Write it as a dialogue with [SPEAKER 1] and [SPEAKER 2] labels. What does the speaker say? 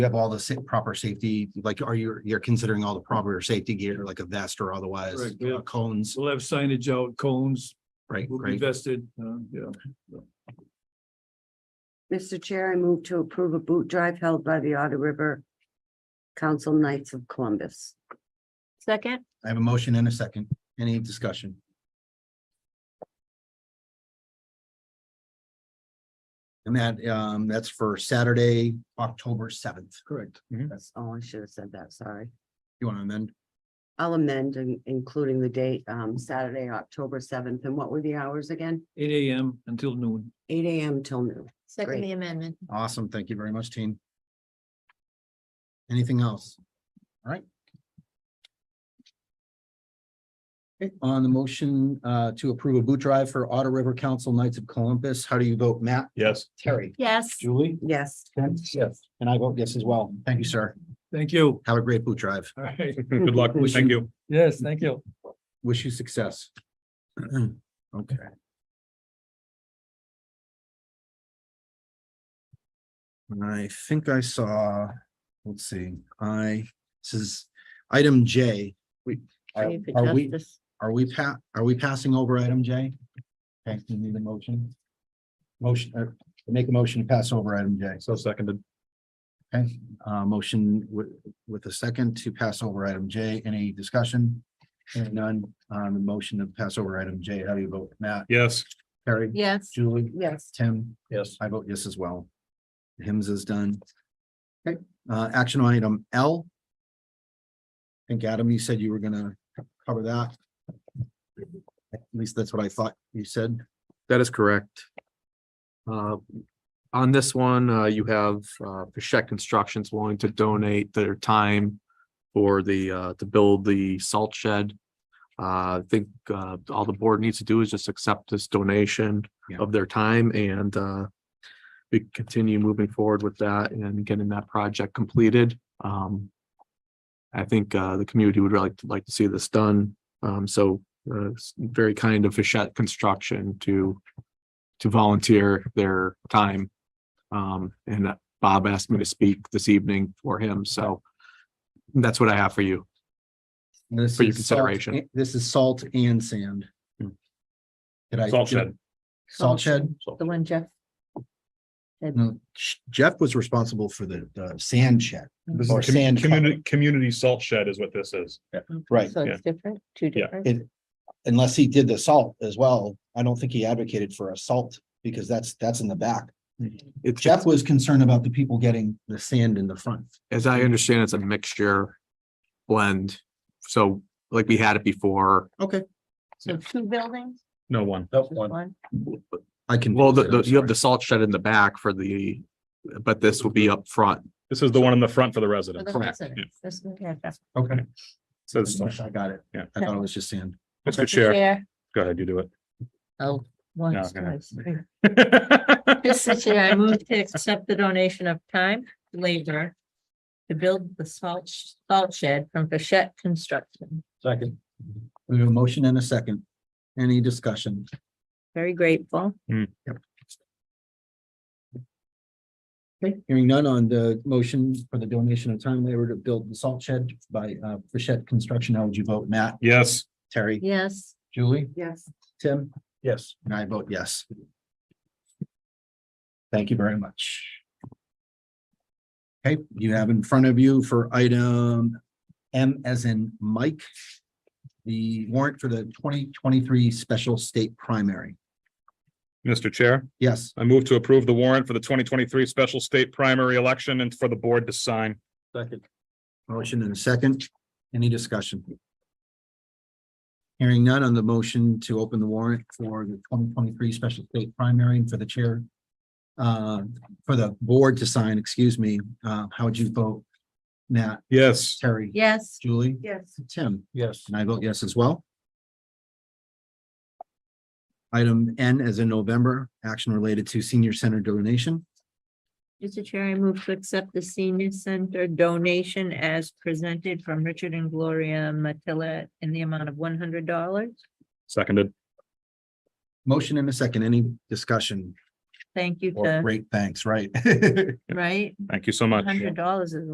[SPEAKER 1] you have all the sa- proper safety, like are you, you're considering all the proper safety gear, like a vest or otherwise,
[SPEAKER 2] Right, yeah.
[SPEAKER 1] uh, cones,
[SPEAKER 2] We'll have signage out, cones,
[SPEAKER 1] right?
[SPEAKER 2] will be
[SPEAKER 1] Great.
[SPEAKER 2] vested, uh, yeah.
[SPEAKER 3] Mr. Chair, I move to approve a boot drive held by the Otter River Council Knights of Columbus.
[SPEAKER 4] Second,
[SPEAKER 1] I have a motion and a second. Any discussion? And that, um, that's for Saturday, October seventh.
[SPEAKER 2] Correct.
[SPEAKER 3] That's, oh, I should have said that, sorry.
[SPEAKER 1] You want to amend?
[SPEAKER 3] I'll amend, in- including the date, um, Saturday, October seventh, and what were the hours again?
[SPEAKER 2] Eight AM until noon.
[SPEAKER 3] Eight AM till noon.
[SPEAKER 4] second
[SPEAKER 3] Great.
[SPEAKER 4] the amendment.
[SPEAKER 1] Awesome. Thank you very much, team. Anything else? All right. Okay, on the motion, uh, to approve a boot drive for Otter River Council Knights of Columbus, how do you vote, Matt?
[SPEAKER 5] Yes.
[SPEAKER 1] Terry.
[SPEAKER 4] Yes,
[SPEAKER 2] Julie?
[SPEAKER 3] Yes.
[SPEAKER 1] Yes. And I vote yes as well. Thank you, sir.
[SPEAKER 2] Thank you.
[SPEAKER 1] Have a great boot drive.
[SPEAKER 2] All right.
[SPEAKER 5] Good luck. Thank you.
[SPEAKER 2] Yes, thank you.
[SPEAKER 1] Wish you success. Okay. And I think I saw, let's see, I, this is item J. We, are
[SPEAKER 4] Trade for
[SPEAKER 1] are we,
[SPEAKER 4] justice.
[SPEAKER 1] are we pa, are we passing over item J? Okay, you need a motion. Motion, uh, make a motion to pass over item J.
[SPEAKER 5] So seconded.
[SPEAKER 1] Okay, uh, motion with, with a second to pass over item J. Any discussion? Hearing none on the motion to pass over item J. How do you vote? Matt,
[SPEAKER 5] Yes.
[SPEAKER 1] Terry,
[SPEAKER 4] yes,
[SPEAKER 1] Julie,
[SPEAKER 3] Yes.
[SPEAKER 1] Tim?
[SPEAKER 5] Yes.
[SPEAKER 1] I vote yes as well. Hims is done. Okay, uh, action item L. I think Adam, you said you were gonna co- cover that. At least that's what I thought you said.
[SPEAKER 6] That is correct. Uh, On this one, uh, you have uh, Pashek Constructions willing to donate their time for the, uh, to build the salt shed. Uh, I think uh, all the board needs to do is just accept this donation
[SPEAKER 1] Yeah.
[SPEAKER 6] of their time and uh, we continue moving forward with that and getting that project completed. Um, I think uh, the community would really like to see this done. Um, So uh, s- very kind of Fichette Construction to to volunteer their time. Um, and uh, Bob asked me to speak this evening for him, so that's what I have for you.
[SPEAKER 1] This
[SPEAKER 6] For your
[SPEAKER 1] is salt-
[SPEAKER 6] consideration. Hmm.
[SPEAKER 1] This is salt and sand. Did I?
[SPEAKER 5] Salt shed.
[SPEAKER 1] Salt shed.
[SPEAKER 4] Oh, the one Jeff.
[SPEAKER 1] No, Sh- Jeff was responsible for the, the sand shed.
[SPEAKER 5] This
[SPEAKER 1] Or
[SPEAKER 5] is
[SPEAKER 1] sand
[SPEAKER 5] commu-
[SPEAKER 1] cover.
[SPEAKER 5] community, community salt shed is what this is.
[SPEAKER 1] Right.
[SPEAKER 4] So it's different, two
[SPEAKER 5] Yeah.
[SPEAKER 4] different.
[SPEAKER 1] It, unless he did the salt as well, I don't think he advocated for a salt because that's, that's in the back.
[SPEAKER 6] It's,
[SPEAKER 1] Jeff was concerned about the people getting the sand in the front.
[SPEAKER 6] as
[SPEAKER 1] Mm-hmm.
[SPEAKER 6] I understand, it's a mixture blend. So like we had it before.
[SPEAKER 1] Okay.
[SPEAKER 4] So two buildings,
[SPEAKER 5] No one.
[SPEAKER 4] just one.
[SPEAKER 1] I can.
[SPEAKER 6] Well, the, the- you have the salt shed in the back for the, but this will be up front.
[SPEAKER 5] This is the one in the front for the
[SPEAKER 4] For
[SPEAKER 5] resident.
[SPEAKER 4] the
[SPEAKER 6] Correct,
[SPEAKER 5] yeah.
[SPEAKER 4] residents. That's what we have.
[SPEAKER 1] Okay.
[SPEAKER 5] Says,
[SPEAKER 1] I got it.
[SPEAKER 5] Yeah.
[SPEAKER 1] I thought it was just sand.
[SPEAKER 5] Mr.
[SPEAKER 4] The
[SPEAKER 5] Chair,
[SPEAKER 4] chair.
[SPEAKER 5] go ahead, you do it.
[SPEAKER 4] Oh, once,
[SPEAKER 5] okay.
[SPEAKER 4] twice, three. Mr. Chair, I move to accept the donation of time, labor to build the salt, sh- salt shed from Bichette Construction.
[SPEAKER 1] Second. We have a motion and a second. Any discussion?
[SPEAKER 4] Very grateful.
[SPEAKER 1] Okay, hearing none on the motion for the donation of time labor to build the salt shed by uh Frechette Construction. How would you vote? Matt,
[SPEAKER 5] Yes.
[SPEAKER 1] Terry,
[SPEAKER 4] Yes,
[SPEAKER 1] Julie,
[SPEAKER 3] Yes.
[SPEAKER 1] Tim?
[SPEAKER 5] Yes.
[SPEAKER 1] And I vote yes. Thank you very much. Okay, you have in front of you for item M as in Mike. The warrant for the twenty twenty-three special state primary.
[SPEAKER 5] Mr. Chair,
[SPEAKER 1] Yes,
[SPEAKER 5] I move to approve the warrant for the twenty twenty-three special state primary election and for the board to sign.
[SPEAKER 6] Second.
[SPEAKER 1] motion and a second. Any discussion? Hearing none on the motion to open the warrant for the twenty twenty-three special state primary and for the chair. Uh, for the board to sign, excuse me, uh, how would you vote? Matt,
[SPEAKER 5] Yes.
[SPEAKER 1] Terry?
[SPEAKER 4] yes,
[SPEAKER 1] Julie?
[SPEAKER 3] Yes.
[SPEAKER 1] Tim?
[SPEAKER 5] Yes.
[SPEAKER 1] And I vote yes as well. Item N as in November, action related to senior center donation.
[SPEAKER 4] Mr. Chair, I move to accept the senior center donation as presented from Richard and Gloria Matilla in the amount of one hundred dollars.
[SPEAKER 5] Seconded.
[SPEAKER 1] Motion and a second. Any discussion?
[SPEAKER 4] thank you
[SPEAKER 7] Or
[SPEAKER 4] to,
[SPEAKER 7] great thanks, right?
[SPEAKER 4] right?
[SPEAKER 1] Thank you so much.
[SPEAKER 4] Hundred dollars is